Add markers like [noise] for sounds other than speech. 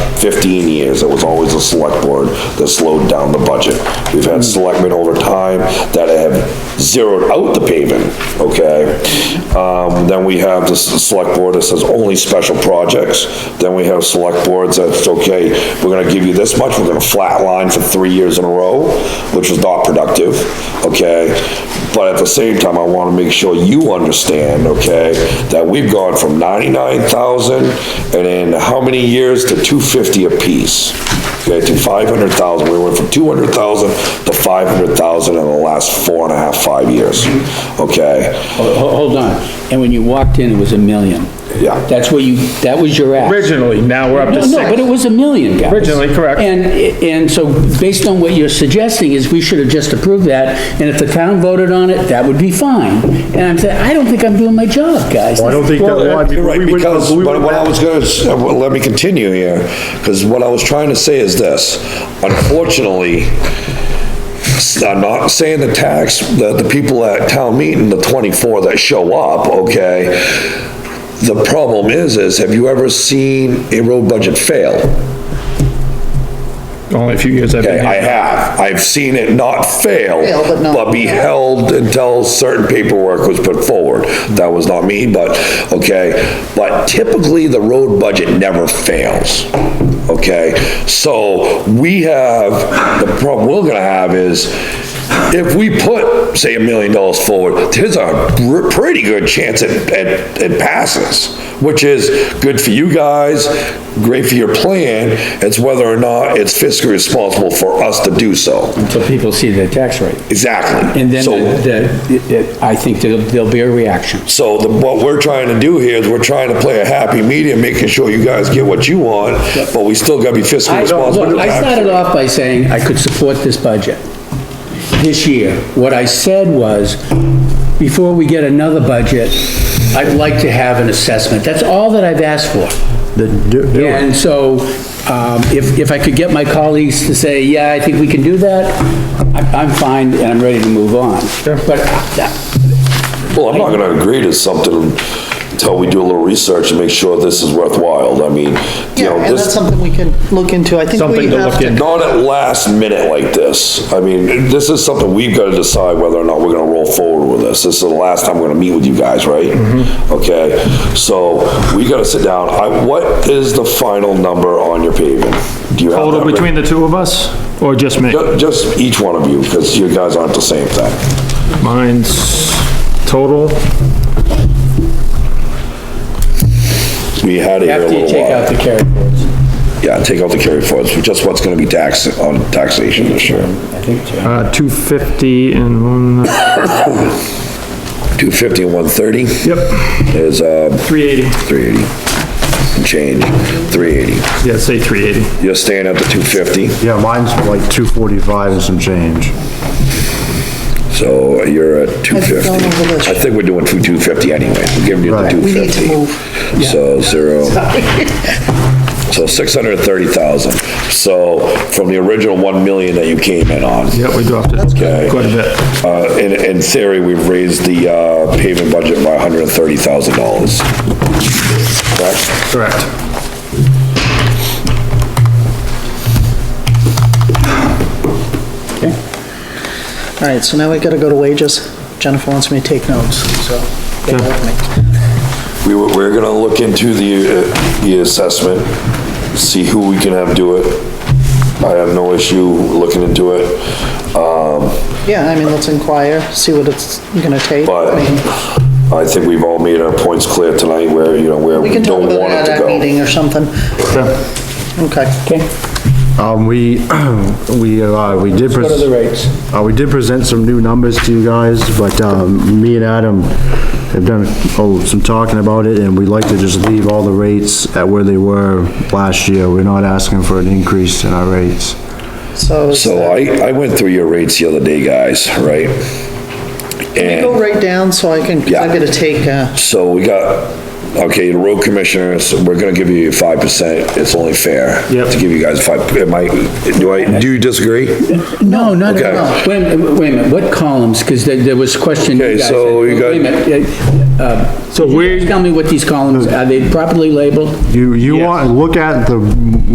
15 years, it was always the select board that slowed down the budget. We've had selectmen over time that have zeroed out the paving, okay? Um, Then we have the s- select board that says only special projects. Then we have select boards that's, okay, we're gonna give you this much, we're gonna flatline for three years in a row, which was not productive, okay? But at the same time, I want to make sure you understand, okay, that we've gone from 99,000 and in how many years to 250 apiece? Okay, to 500,000. We went from 200,000 to 500,000 in the last four and a half, five years. Okay? Ho- ho- Oh, Hold on, and when you walked in, it was a million. Yeah. That's where you, that was your ask. Originally, now we're up to No, no, but it six. was a million, guys. Originally, correct. And, and so based on what you're suggesting is we should have just approved that, and if the town voted on it, that would be fine. And I'm saying, I don't think I'm doing my job, guys. I don't think that, Well, I mean, You're right, we would've- because, we but would've- what I was gonna, s- uh, well, let me continue here, because what I was trying to say is this, unfortunately, s- I'm not saying the tax, the, the people at town meeting, the 24 that show up, okay? The problem is, is have you ever seen a road budget fail? Only a few years I've Okay, been I here. have. I've seen it not fail, Fail, but not- but be held until certain paperwork was put forward. That was not me, but, okay, but typically the road budget never fails, okay? So we have, the problem we're gonna have is, if we put, say, a million dollars forward, there's a r- pretty good chance it, it, it passes, which is good for you guys, great for your plan, it's whether or not it's fiscally responsible for us to do so. Until people see the tax rate. Exactly. And then, So- the- the- I think there'll there'll be a reaction. So the, what we're trying to do here is we're trying to play a happy medium, making sure you guys get what you want, but we still gotta be fiscally I, responsible. look, I started off by saying I could support this budget this year. What I said was, before we get another budget, I'd like to have an assessment. That's all that I've asked for. Then do- do it. And so, um, if, if I could get my colleagues to say, yeah, I think we can do that, I'm, I'm fine and I'm ready to move on. But, uh, Well, I'm not gonna agree to something until we do a little research and make sure this is worthwhile. I mean, you Yeah, know, and that's this, something we can look into. I think we Something to have look to into. not at last minute like this. I mean, this is something we've gotta decide whether or not we're gonna roll forward with this. This is the last time we're gonna meet with you guys, right? Mm-hmm. Okay, so we gotta sit down. I, what is the final number on your paving? Do you have Total that written? between the two of us, or just me? Ju- Just each one of you, because you guys aren't the same thing. Mine's total, We had it here a after you little take out while. the carry forwards, Yeah, take out the carry forwards, which is what's gonna be tax, on taxation this year. I think, Jim. uh, 250 and one, uh, Two fifty and one thirty yep, is, uh, 380. three eighty. Change, three eighty. Yeah, say 380. You're staying at the two fifty, Yeah, mine's like 245 and some change. so you're at two fifty. going over this. I think we're doing two, two fifty anyway. We're giving you the Right. two We fifty. need to So [laughs] zero. So six hundred and thirty thousand. So from the original one million that you came in on. Yep, we dropped Okay. it quite a bit. Uh, in, in theory, we've raised the, uh, paving budget by hundred and thirty thousand dollars. Correct? Correct. All right, so now we gotta go to wages. Jennifer wants me to take notes, so. bear with me. We were, we're gonna look into the, uh, the assessment, see who we can have do it. I have no issue looking into it, um, Yeah, I mean, let's inquire, see what it's gonna take. but I mean, I think we've all made our points clear tonight where, you know, where We we can talk don't about want it that to at a go. meeting or something. Okay. okay, Um, we, [clears throat] we, uh, we did. what are the pres- rates? Uh, we did present some new numbers to you guys, but, um, me and Adam have done, oh, some talking about it, and we'd like to just leave all the rates at where they were last year. We're not asking for an increase in our rates. So, So I, I went through your rates the other day, guys, right? go And right down so I can, 'cause I'm Yeah. gonna take, uh, so we got, okay, the road commissioners, we're gonna give you five percent, it's only fair. Yep. To give you guys five, am I, do I, do you disagree? No, not Okay. at all. Wait, a minute, wait a minute, what columns? Because there, there was question. you Okay, guys so had. you got- Wait a minute, uh, uh, So could you where- guys Tell me what these columns, are they properly labeled? You, you Yes. want, look at the